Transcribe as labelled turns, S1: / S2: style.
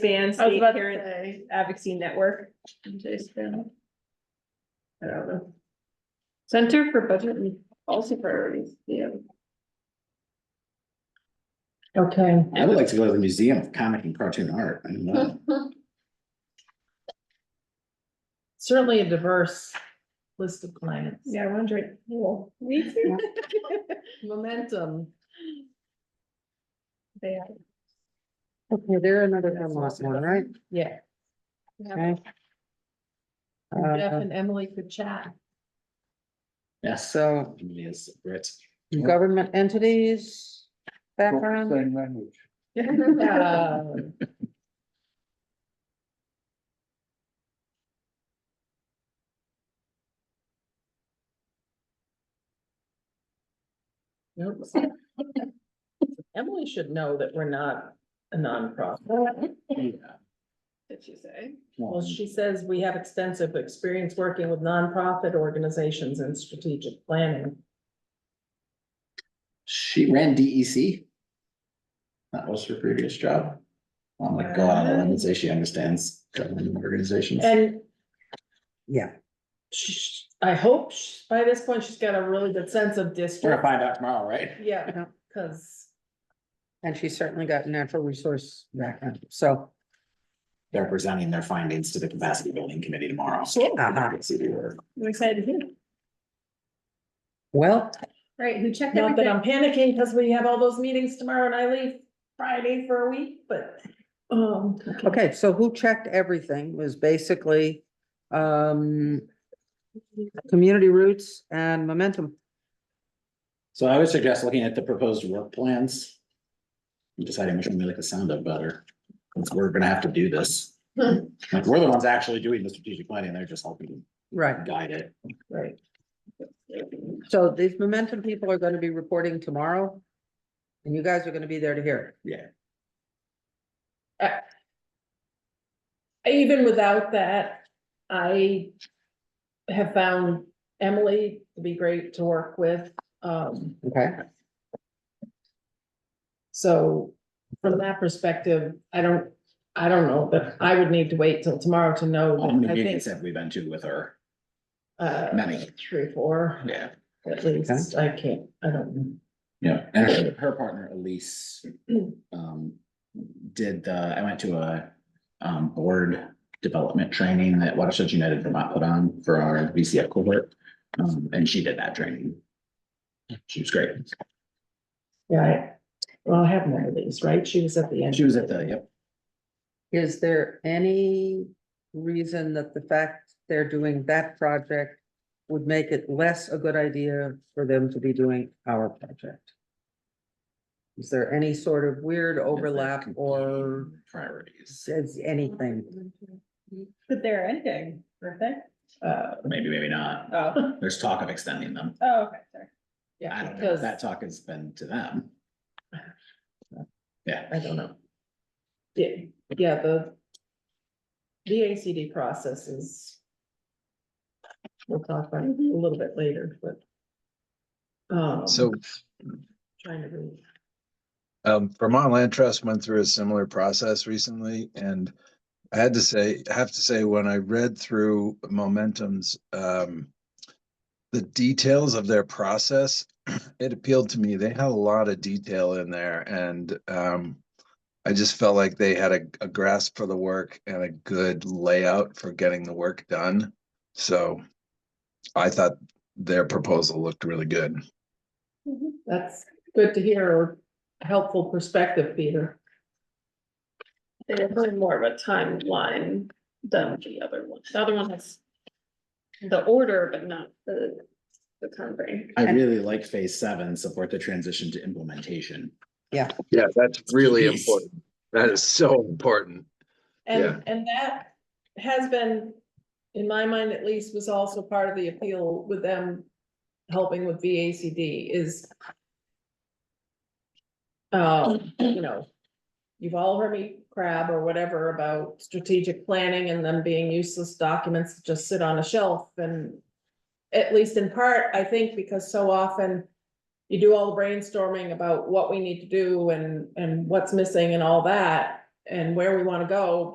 S1: expand
S2: I was
S1: state
S2: about to
S1: parent
S2: say,
S1: advocacy network.
S2: Jason. I don't know. Center for Budget and Policy Priorities, yeah.
S3: Okay,
S4: I would like to go to the Museum of Comic and Cartoon Art. I don't know.
S3: certainly a diverse list of clients.
S1: Yeah, I wondered, well, we too.
S3: Momentum.
S1: They
S5: Okay, they're another Hemlock one, right?
S3: Yeah.
S5: Okay.
S3: Jeff
S5: Uh,
S3: and Emily could chat.
S4: Yes,
S5: So
S4: yes, Brits.
S5: Um, government entities background,
S6: Same language.
S3: Um, nope. Emily should know that we're not a nonprofit.
S2: Did she say?
S3: Well, she says we have extensive experience working with nonprofit organizations and strategic planning.
S4: She ran DEC. That was her previous job. Oh I'm like, go out on a limb and say she understands government organizations.
S3: And
S5: yeah.
S3: sh- I hope sh- by this point she's got a really good sense of
S4: We're gonna
S3: district.
S4: find out tomorrow, right?
S3: Yeah,
S5: Yeah.
S3: because
S5: And she's certainly got natural resource background, so.
S4: They're presenting their findings to the capacity building committee tomorrow.
S5: Uh-huh.
S4: See the work.
S1: I'm excited to hear.
S5: Well,
S1: Right, who checked
S3: not that
S1: everything?
S3: I'm panicking because we have all those meetings tomorrow and I leave Friday for a week, but. Um,
S5: okay, so who checked everything was basically um. Community roots and momentum.
S4: So I would suggest looking at the proposed work plans. and Deciding which one we like the sound of better. Since we're gonna have to do this.
S3: Hmm.
S4: Like, we're the ones actually doing the strategic planning. They're just helping
S5: Right,
S4: guide it.
S3: right.
S5: so these momentum people are gonna be reporting tomorrow. And you guys are gonna be there to hear
S4: Yeah.
S3: Even without that, I have found Emily to be great to work with. Um,
S5: it, okay?
S3: so from that perspective, I don't, I don't know, but I would need to wait till tomorrow to know.
S4: How many
S3: that I think,
S4: meetings have we been to with her?
S3: uh,
S4: Many.
S3: Three, four,
S4: Yeah.
S3: at least. I can't, I don't. know.
S4: Yeah, and her, her partner Elise, um, did the, I went to a, um, board development training that Watershed United Vermont put on for our VCF cohort. Um, and she did that training. She was great.
S3: Yeah, I- well, I have one of these, right? She was at the
S4: And
S3: end.
S4: she was at the, yep,
S5: Is there any reason that the fact they're doing that project would make it less a good idea for them to be doing our project? Is there any sort of weird overlap or
S4: priorities,
S5: says anything?
S1: But they're ending, aren't they?
S3: Uh,
S4: maybe, maybe not.
S1: Oh,
S4: There's talk of extending them.
S1: oh, okay, sorry.
S4: I
S3: yeah,
S4: don't know. if
S3: because,
S4: That talk has been to them. Yeah.
S3: I don't know. Yeah, yeah, the. The ACD process is. We'll talk about it a little bit later, but. Um.
S7: So
S3: Trying to read.
S7: um, Vermont Land Trust went through a similar process recently and I had to say, I have to say, when I read through Momentum's um, the details of their process, it appealed to me. They had a lot of detail in there and um, I just felt like they had a, a grasp for the work and a good layout for getting the work done. So I thought their proposal looked really good.
S3: That's good to hear, or helpful perspective, Peter.
S2: They're really more of a timeline than the other one. The other one has the order, but not the, the time frame.
S4: I really like phase seven, support the transition to implementation.
S7: Yeah, that's really
S4: Yes.
S7: important. That is so important. Yeah.
S3: And, and that has been, in my mind at least, was also part of the appeal with them helping with VACD is uh, you know, you've all heard me crab or whatever about strategic planning and them being useless documents that just sit on a shelf and at least in part, I think, because so often you do all the brainstorming about what we need to do and, and what's missing and all that. and where we wanna go,